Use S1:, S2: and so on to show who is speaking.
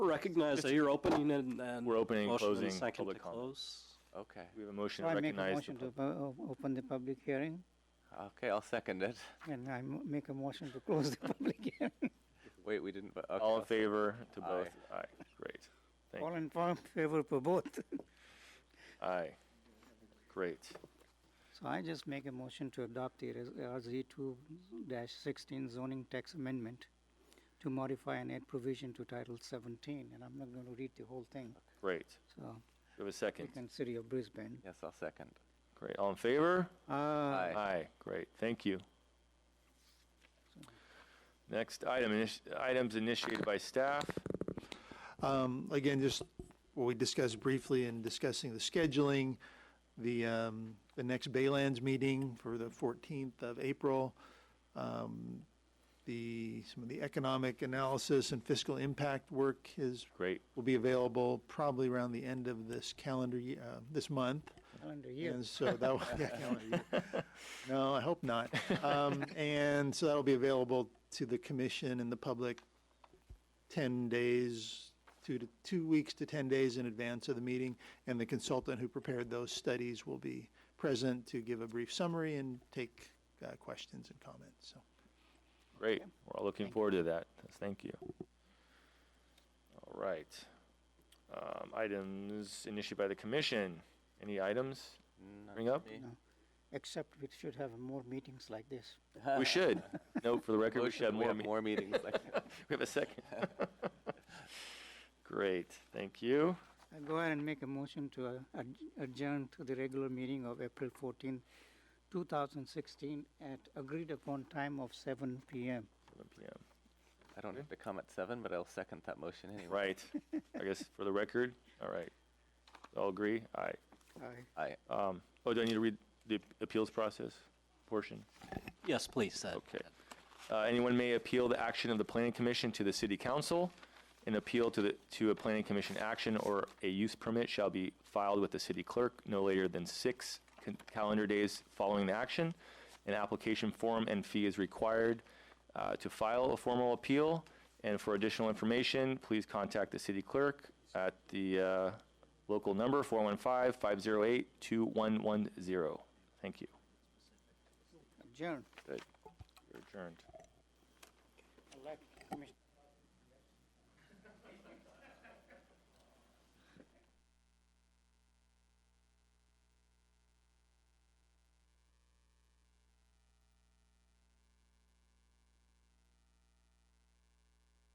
S1: recognize that you're opening and then.
S2: We're opening and
S1: motion
S2: closing
S1: second
S2: public
S1: to
S2: comment.
S1: close.
S3: Okay.
S2: We have a motion
S4: So
S2: to
S4: I make a
S2: recognize.
S4: motion
S2: the
S4: to
S2: pub-
S4: pu- o- open the public hearing,
S3: Okay, I'll second it.
S4: and I mo- make a motion to close the public hearing.
S3: Wait, we didn't, vo- okay.
S2: All
S3: I'll
S2: in
S3: s-
S2: favor to both? Aye, great. Thank
S4: All in fa- favor for both.
S2: you. Aye. Great.
S4: So I just make a motion to adopt the res- RZ two dash sixteen zoning tax amendment to modify and add provision to Title seventeen, and I'm not gonna read the whole thing,
S2: Great.
S4: so
S2: We have a
S4: we
S2: second.
S4: can City of Brisbane.
S3: Yes, I'll second.
S2: Great. All in favor?
S4: Uh,
S3: Aye.
S2: Aye. Great. Thank you. Next item, initi- items initiated by staff.
S5: Um, Again, just what we discussed briefly in discussing the scheduling, the, um, the next Baylands meeting for the 14th of April, um, the, some of the economic analysis and fiscal impact work is,
S2: Great.
S5: will be available probably around the end of this calendar, ye- uh, this month.
S4: calendar year.
S5: And so that, will- yeah, calendar year. no, I hope not. Um, and so that'll be available to the commission and the public 10 days, two to, two weeks to 10 days in advance of the meeting. And the consultant who prepared those studies will be present to give a brief summary and take uh, questions and comments, so.
S2: Great. We're all looking forward to that. Yes, Thank you. All right. Um, items initiated by the commission. Any items?
S3: Not
S2: Bring up?
S3: me.
S4: No. Except we should have more meetings like this.
S2: We should. No, for the record, we
S3: Motion,
S2: should have
S3: we
S2: more.
S3: have
S2: me-
S3: more meetings. like-
S2: We have a second. Great. Thank you.
S4: I go ahead and make a motion to uh, adj- adjourn to the regular meeting of April 14, 2016 at agreed upon time of 7 p.m.
S2: 7 p.m.
S3: I don't have to come at seven, but I'll second that motion anyway.
S2: Right. I guess for the record. All right. All agree? Aye.
S4: I
S3: I,
S2: Um, oh, do I need to read the appeals process portion?
S1: Yes, please. that-
S2: Okay. Uh, anyone may appeal the action of the planning commission to the city council. An appeal to the, to a planning commission action or a use permit shall be filed with the city clerk no later than six con- calendar days following the action. An application form and fee is required, uh, to file a formal appeal. And for additional information, please contact the city clerk at the, uh, local number 415-508-2110. Thank you.
S4: adjourn.
S2: You're adjourned.